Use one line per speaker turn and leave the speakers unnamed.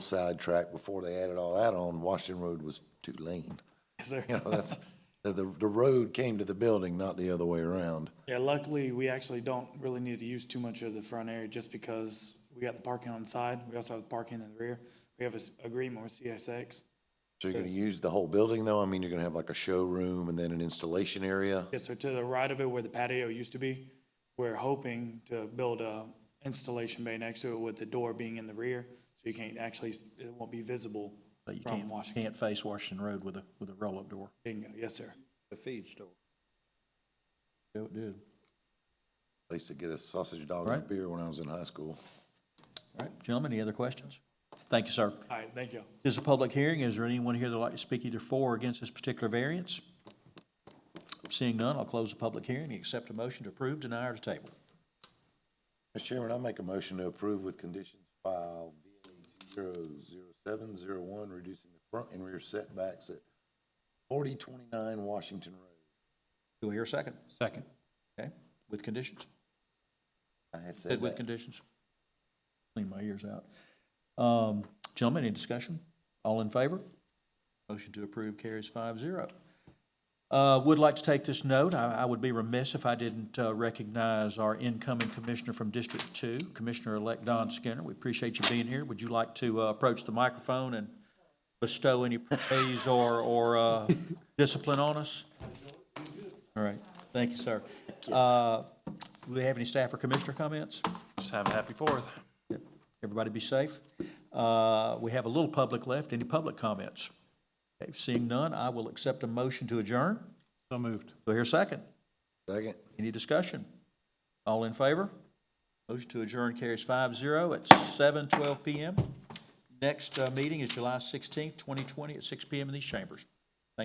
sidetrack before they added all that on, Washington Road was two lane. You know, that's, the, the the road came to the building, not the other way around.
Yeah, luckily, we actually don't really need to use too much of the front area just because we got the parking on the side. We also have the parking in the rear. We have an agreement with CSX.
So you're gonna use the whole building though? I mean, you're gonna have like a showroom and then an installation area?
Yes, sir, to the right of it where the patio used to be, we're hoping to build a installation bay next to it with the door being in the rear. So you can't actually, it won't be visible
But you
from
can't,
Washington.
can't face Washington Road with a, with a roll-up door.
Bingo, yes, sir.
the feed store.
Do it, do
I used to get a sausage dog and a
Right.
beer when I was in high school.
All right, gentlemen, any other questions? Thank you, sir.
All right, thank you.
This is a public hearing. Is there anyone here that'd like to speak either for or against this particular variance? Seeing none, I'll close the public hearing and accept a motion to approve, deny, or to table.
Mr. Chairman, I make a motion to approve with conditions filed BA zero zero seven zero one, reducing the front and rear setbacks at forty twenty-nine Washington Road.
Do I hear a second? Second. Okay, with conditions?
I had
Said
said
with
that.
conditions? Clean my ears out. Um, Gentlemen, any discussion? All in favor? Motion to approve carries five zero. Uh, Would like to take this note, I I would be remiss if I didn't uh, recognize our incoming commissioner from District Two, Commissioner-elect Don Skinner. We appreciate you being here. Would you like to uh, approach the microphone and bestow any praise or or uh, discipline on us? All right, thank you, sir. Uh, Do we have any staff or commissioner comments?
Just have a happy fourth.
Everybody be safe. Uh, We have a little public left. Any public comments? Okay, Seeing none, I will accept a motion to adjourn.
So moved.
Do I hear a second?
Second.
Any discussion? All in favor? Motion to adjourn carries five zero at seven twelve PM. Next uh, meeting is July sixteenth, twenty twenty, at six PM in these chambers.